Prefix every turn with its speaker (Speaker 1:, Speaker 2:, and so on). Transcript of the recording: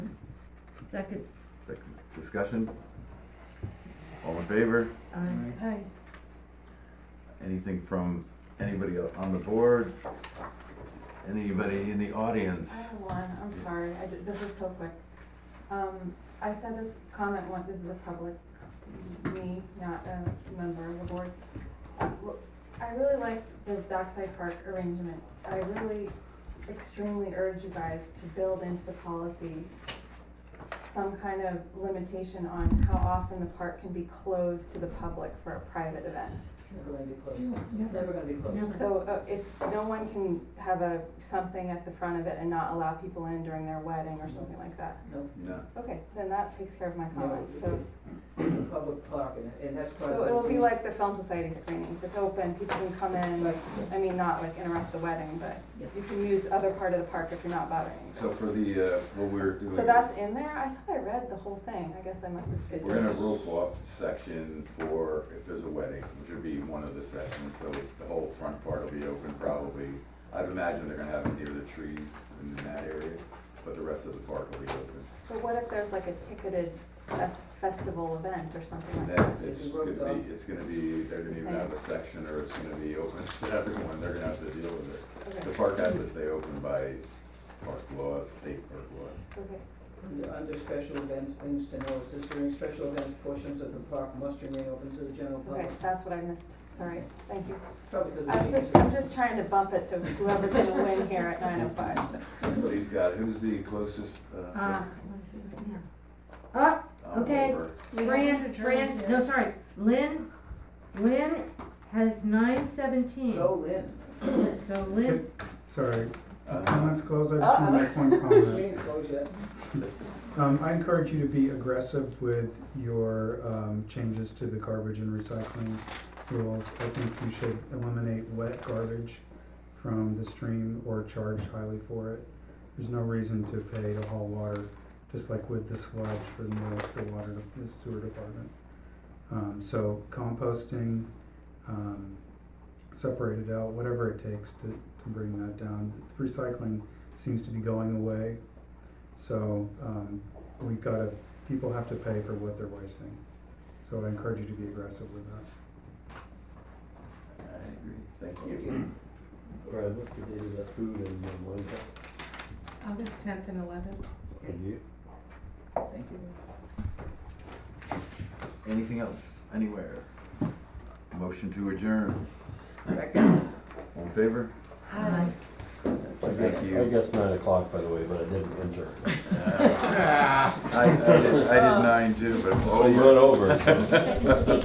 Speaker 1: Second,
Speaker 2: Second. Discussion? All in favor?
Speaker 1: aye, aye.
Speaker 2: Anything from anybody on the board? Anybody in the audience?
Speaker 3: I have one, I'm sorry, I did, this is so quick. Um, I said this comment once, this is a public, me, not a member of the board. Uh, w- I really like the Dockside Park arrangement. I really extremely urge you guys to build into the policy some kind of limitation on how often the park can be closed to the public for a private event.
Speaker 4: It's never gonna be closed. It's
Speaker 1: Never,
Speaker 4: never gonna be closed.
Speaker 1: never.
Speaker 3: So uh, if no one can have a, something at the front of it and not allow people in during their wedding or something like that,
Speaker 4: No,
Speaker 2: No.
Speaker 3: okay, then that takes care of my
Speaker 4: no,
Speaker 3: comment, so.
Speaker 4: it's a public park and, and that's part of.
Speaker 3: So it'll be like the film society screenings, it's open, people can come in,
Speaker 4: Right.
Speaker 3: I mean, not like interrupt the wedding, but you can use other part of the park if you're not bothering. anybody.
Speaker 2: So for the, uh, what we're doing.
Speaker 3: So that's in there, I thought I read the whole thing, I guess I must have skipped
Speaker 2: We're in a
Speaker 3: it.
Speaker 2: roof off section for if there's a wedding, which would be one of the sections, so the whole front part will be open probably. I'd imagine they're gonna have it near the trees in that area, but the rest of the park will be open.
Speaker 3: But what if there's like a ticketed fes- festival event or something like
Speaker 2: And
Speaker 3: that?
Speaker 2: then it's
Speaker 4: It's
Speaker 2: gonna
Speaker 4: roped off.
Speaker 2: be, it's gonna be, they're gonna even have a section or it's gonna be open to everyone, they're gonna have to deal with it.
Speaker 3: Okay,
Speaker 2: The park has to stay open by park law, state park law.
Speaker 3: okay.
Speaker 4: Under- Under special events, things to know, it says during special events, portions of the park must remain open to the general
Speaker 3: Okay,
Speaker 4: public.
Speaker 3: that's what I missed, sorry, thank you.
Speaker 4: Probably to the
Speaker 3: I'm just, I'm just trying to bump it to whoever's gonna win here at nine oh five, so.
Speaker 2: Somebody's got, who's the closest, uh,
Speaker 5: Ah, let me see right here.
Speaker 2: I'm
Speaker 5: okay.
Speaker 2: over.
Speaker 5: Fran, Fran, no, sorry, Lynn, Lynn has nine seventeen.
Speaker 4: Go in.
Speaker 5: So Lynn,
Speaker 6: Sorry,
Speaker 2: Uh,
Speaker 6: comments closed, I just want to make one
Speaker 4: We
Speaker 6: comment.
Speaker 4: ain't closed yet.
Speaker 6: Um, I encourage you to be aggressive with your, um, changes to the garbage and recycling rules. I think you should eliminate wet garbage from the stream or charge highly for it. There's no reason to pay to haul water, just like with the sludge for the, mill- the water, the sewer department. Um, so composting, um, separate it out, whatever it takes to, to bring that down. Recycling seems to be going away, so, um, we've gotta, people have to pay for what they're wasting. So I encourage you to be aggressive with that.
Speaker 2: I agree, thank
Speaker 4: Thank
Speaker 2: you.
Speaker 4: you.
Speaker 7: All right, what's the date of that food uh, and then Wednesday?
Speaker 8: August tenth and eleventh.
Speaker 7: And you?
Speaker 4: Thank you.
Speaker 2: Anything else, anywhere? Motion to adjourn,
Speaker 4: Second.
Speaker 2: all in favor?
Speaker 5: Aye.
Speaker 7: I guess,
Speaker 2: you.
Speaker 7: I guess nine o'clock, by the way, but I didn't enter.
Speaker 2: I, I did, I did nine too, but I'm
Speaker 7: I was
Speaker 2: over.
Speaker 7: run over. so-